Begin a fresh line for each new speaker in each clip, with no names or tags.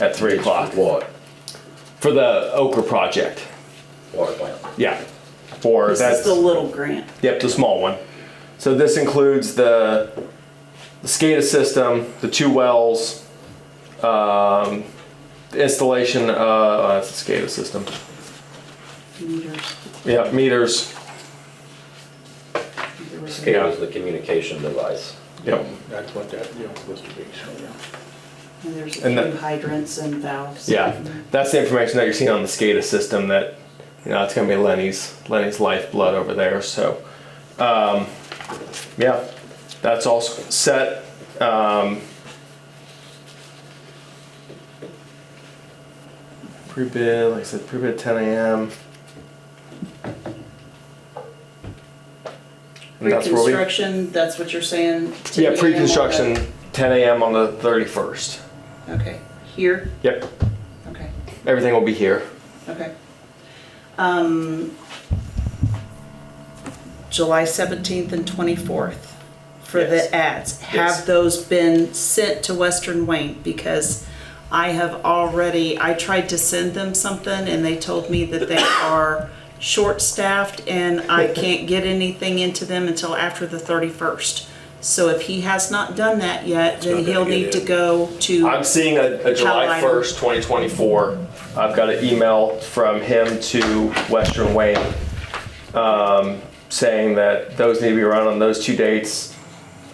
at three o'clock
What?
for the Okra project.
Water plant.
Yeah, for
This
that's
is the little grant.
Yep, the small one. So this includes the, the SCADA system, the two wells, um, the installation, uh, oh, that's the SCADA system.
Meters.
Yeah, meters.
SCADA is the communication device.
Yep.
That's what that, you know, supposed to be, so, yeah.
And there's a
And
few
the-
hydrants and valves.
Yeah, that's the information that you're seeing on the SCADA system that, you know, it's gonna be Lenny's, Lenny's lifeblood over there, so. um, Yeah, that's all s- set. Um, Pre-bid, like I said, pre-bid ten AM. And that's where we.
Pre-construction, that's what you're saying? 10
Yeah,
a.m.
pre-construction, ten AM on the thirty-first.
Okay, here,
Yep,
okay,
everything will be here.
okay. Um, July 17th and 24th for
Yes.
the ads.
Yes.
Have those been sent to Western Wayne? Because I have already, I tried to send them something and they told me that they are short-staffed and I can't get anything into them until after the 31st. So if he has not done that yet, then
not gonna
he'll
get
need to
in.
go to.
I'm seeing a, a July
Outline.
1st, 2024. I've got an email from him to Western Wayne um, saying that those need to be run on those two dates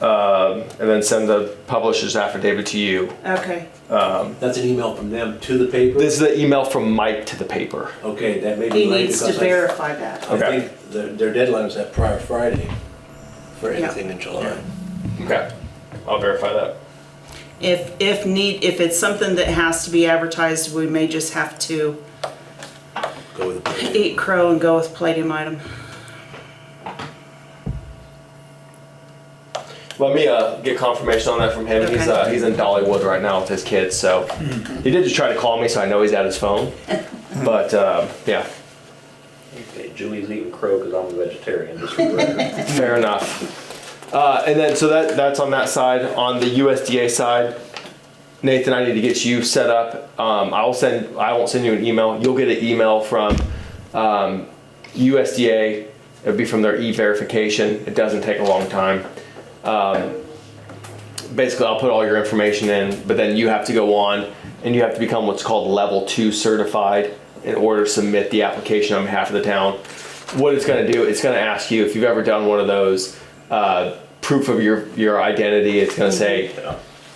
um, and then send the publisher's affidavit to you.
Okay.
That's an email from them to the paper?
This is the email from Mike to the paper.
Okay, that may be
He
late
needs to
because I-
verify that.
I
Okay.
think their, their deadline is that prior Friday for
Yeah.
anything in July.
Okay. I'll verify that.
If, if need, if it's something that has to be advertised, we may just have to
Go with the.
eat crow and go with palladium item.
Let me uh, get confirmation on that from him. He's,
Okay.
uh, he's in Dollywood right now with his kids, so he did just try to call me, so I know he's at his phone. But um, yeah,
Okay, Julie's eating crow because I'm a vegetarian, just for the record.
Fair enough. Uh, and then, so that that's on that side. On the USDA side, Nathan, I need to get you set up. Um, I will send. I won't send you an email. You'll get an email from um, USDA. It'll be from their e-verification. It doesn't take a long time. Um, basically, I'll put all your information in, but then you have to go on and you have to become what's called level two certified in order to submit the application on behalf of the town what it's going to do it's going to ask you if you've ever done one of those uh, proof of your your identity it's going to say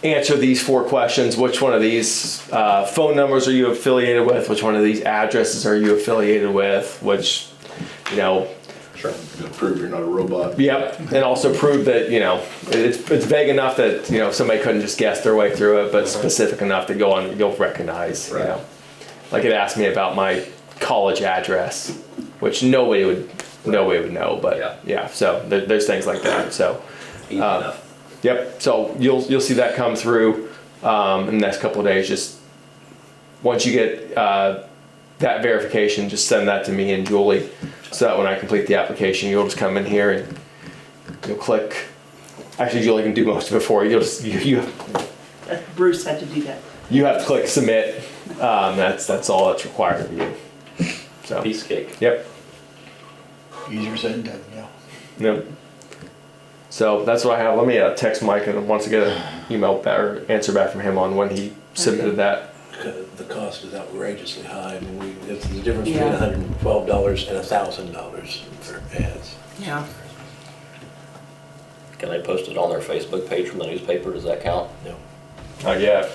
answer these four questions which one of these uh, phone numbers are you affiliated with which one of these addresses are you affiliated with which you know
Sure.
Prove you're not a robot.
Yep, and also prove that you know it's it's vague enough that you know somebody couldn't just guess their way through it, but specific enough that you'll you'll recognize. You
Right.
know, like it asked me about my college address, which nobody would nobody would know, but
Yeah.
yeah, so there, there's things like that. So,
Easy enough.
yep, so you'll you'll see that come through um, in the next couple of days. Just once you get uh, that verification, just send that to me and Julie, so that when I complete the application, you'll just come in here and you'll click. Actually, Julie can do most of it for you. You'll just you you,
Uh, Bruce had to do that.
you have to click submit. Um, that's that's all that's required of you. So
Piece cake.
yep,
Easier said than done, yeah.
no. So that's what I have. Let me uh, text Mike and once I get an email back or answer back from him on when he submitted that.
co- The cost is outrageously high, I mean, we, it's the difference between
Yeah.
hundred and twelve dollars and thousand dollars for ads.
Yeah.
Can they post it on their Facebook page from the newspaper? Does that count?
No.
Not yet.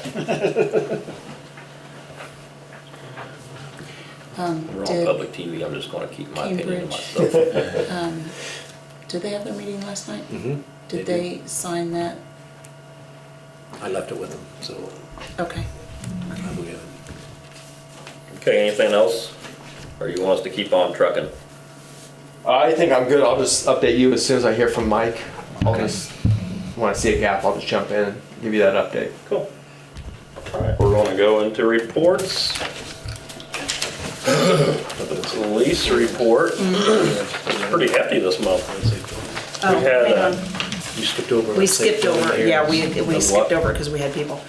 We're on
Did,
public TV. I'm just going to keep my opinion to
Cambridge.
myself.
um, did they have their meeting last night?
Mm-hmm.
Did they sign that?
I left it with them, so
Okay.
I will get it.
Okay, anything else? Or you want us to keep on trucking?
I think I'm good. I'll just update you as soon as I hear from Mike. I'll just when I see a gap, I'll just jump in and give you that update.
Cool. All right, we're gonna go into reports. The Police report, pretty hefty this month.
Oh,
had,
hang
uh,
on.
You skipped over.
We
it, said
skipped over,
preliminaries.
yeah, we,
Of
we
what?
skipped over because we had people.